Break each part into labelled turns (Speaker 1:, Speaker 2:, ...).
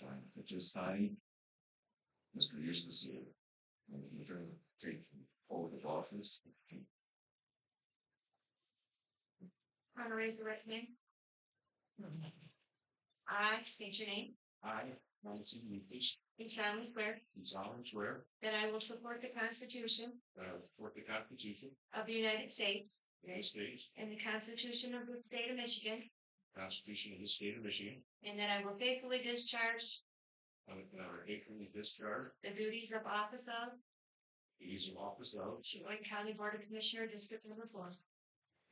Speaker 1: time, which is signing Mr. Eustace here. Making sure to take hold of office.
Speaker 2: I'm gonna raise your right hand. I state your name.
Speaker 1: I, Nancy Eustace,
Speaker 2: Do solemnly swear
Speaker 1: do solemnly swear
Speaker 2: that I will support the Constitution
Speaker 1: that I will support the Constitution of
Speaker 2: of the United States
Speaker 1: the United States,
Speaker 2: and the Constitution of the State of Michigan,
Speaker 1: the Constitution of the State of Michigan,
Speaker 2: and that I will faithfully discharge
Speaker 1: and that I will faithfully discharge
Speaker 2: the duties of office of
Speaker 1: the duties of office of
Speaker 2: Sheboygan County Board of Commissioner, District Number Four,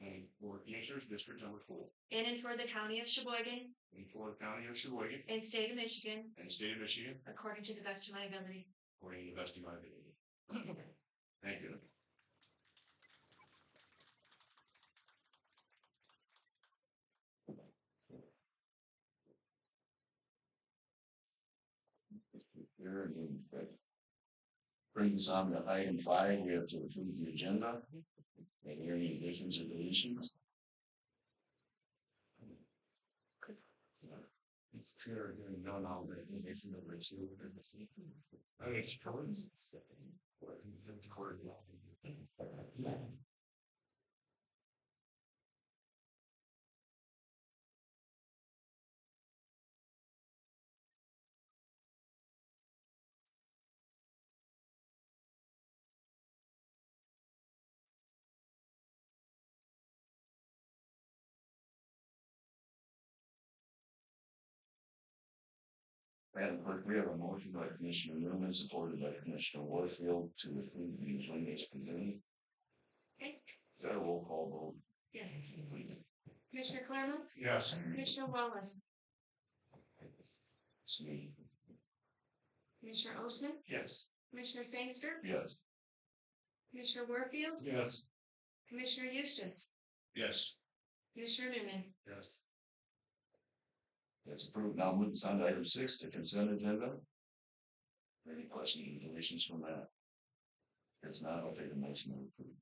Speaker 1: and for Commissioners District Number Four,
Speaker 2: in and for the County of Sheboygan
Speaker 1: in Florida County of Sheboygan,
Speaker 2: and State of Michigan,
Speaker 1: and the State of Michigan,
Speaker 2: according to the best of my ability.
Speaker 1: according to the best of my ability. Thank you. There it is, but Brings us on to item five, we have to approve the agenda. Are there any additions or deletions? It's clear, there are none, I'll make a motion to resume the meeting. I mean, it's probably seven, or even quarter to eleven. Madam Clerk, we have a motion by Commissioner Newman, supported by Commissioner Warfield to approve the agenda as presented.
Speaker 2: Okay,
Speaker 1: Is that a roll call
Speaker 2: yes.
Speaker 1: vote, please?
Speaker 2: Commissioner Claremont,
Speaker 1: Yes.
Speaker 2: Commissioner Wallace,
Speaker 1: It's me.
Speaker 2: Commissioner Osmann,
Speaker 1: Yes.
Speaker 2: Commissioner Sangster,
Speaker 1: Yes.
Speaker 2: Commissioner Warfield,
Speaker 1: Yes.
Speaker 2: Commissioner Eustace,
Speaker 1: Yes.
Speaker 2: Commissioner Newman.
Speaker 1: Yes. That's approved. Now moving on to item six, the consent agenda. Any questions or deletions from that? If not, I'll take a motion to approve.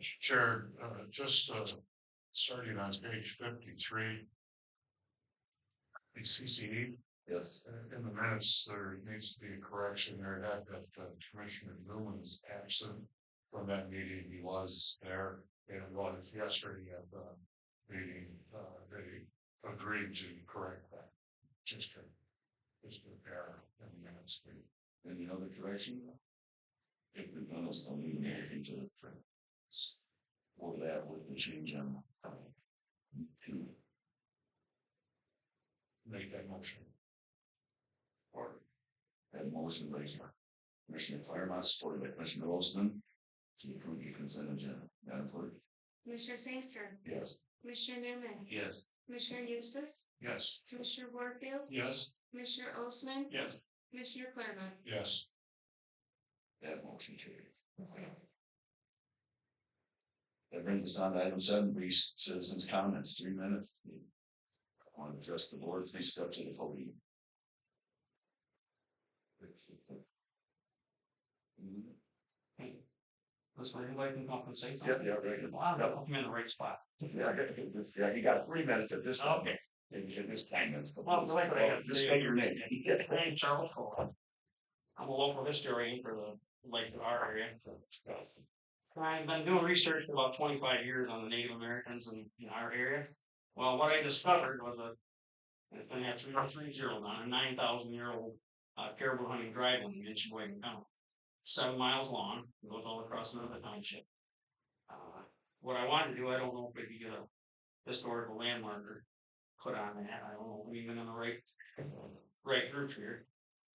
Speaker 3: Mr. Chair, uh, just, uh, starting on page fifty-three. The CCD,
Speaker 1: Yes.
Speaker 3: uh, in the minutes, there needs to be a correction there, that, that uh, Commissioner Newman is absent from that meeting, he was there, and was yesterday at the meeting, uh, they agreed to correct that. Just to, just to bear in the minutes, we
Speaker 1: Any other corrections? If we've done this, I'll need anything to the print. Or that with the change on. Two.
Speaker 3: make that motion.
Speaker 1: Or. That motion by Commissioner Claremont, supported by Commissioner Olson. To approve the consent agenda. Madam Clerk?
Speaker 2: Commissioner Sangster,
Speaker 1: Yes.
Speaker 2: Commissioner Newman,
Speaker 3: Yes.
Speaker 2: Commissioner Eustace,
Speaker 3: Yes.
Speaker 2: Commissioner Warfield,
Speaker 3: Yes.
Speaker 2: Commissioner Osmann,
Speaker 3: Yes.
Speaker 2: Commissioner Claremont.
Speaker 3: Yes.
Speaker 1: That motion carries. That brings us on to item seven, brief citizens' comments, three minutes. Want to address the board, please step to the podium.
Speaker 4: This way, everybody can come up and say
Speaker 1: Yeah,
Speaker 4: something.
Speaker 1: yeah, right.
Speaker 4: Wow, that put me in the right spot.
Speaker 1: Yeah, okay, this- yeah, you got three minutes at this. time.
Speaker 4: Okay.
Speaker 1: And and this time, that's.
Speaker 4: Well, like I have-
Speaker 1: Just say your name.
Speaker 4: My name's Charles Cole. I'm a local historian for the lakes of our area. I've been doing research for about twenty-five years on the Native Americans in, in our area. Well, what I discovered was a, it's been had three, oh three zeros on a nine thousand year old uh, caribou hunting driveway in Sheboygan County. Seven miles long, goes all across another township. Uh, What I wanted to do, I don't know if we could get a historical landmarker put on that. I don't know, if we're even in the right right group here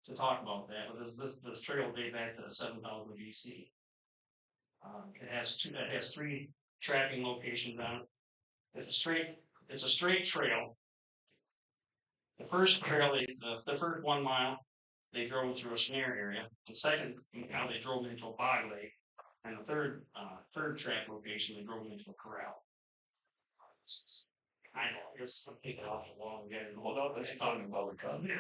Speaker 4: to talk about that, but this, this, this trail date back to seven thousand BC. Um, it has two, it has three tracking locations on it. It's a straight, it's a straight trail. The first trail, they- the, the first one mile, they drove through a snare area. The second, now they drove into a bog lake. And the third, uh, third track location, they drove into a corral. It's- it's Kind of, I guess I'm taking off the wall and getting.
Speaker 1: Hold on, let's talk about the comment.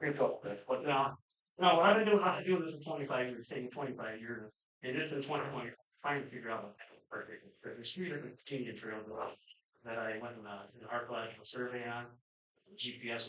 Speaker 4: Here go, that's what, no, no, what I've been doing, I've been doing this for twenty-five years, taking twenty-five years, and just in twenty twenty, trying to figure out. a perfect- There's three uh, different Indian trails that I- that I went on an archaeological survey on, GPS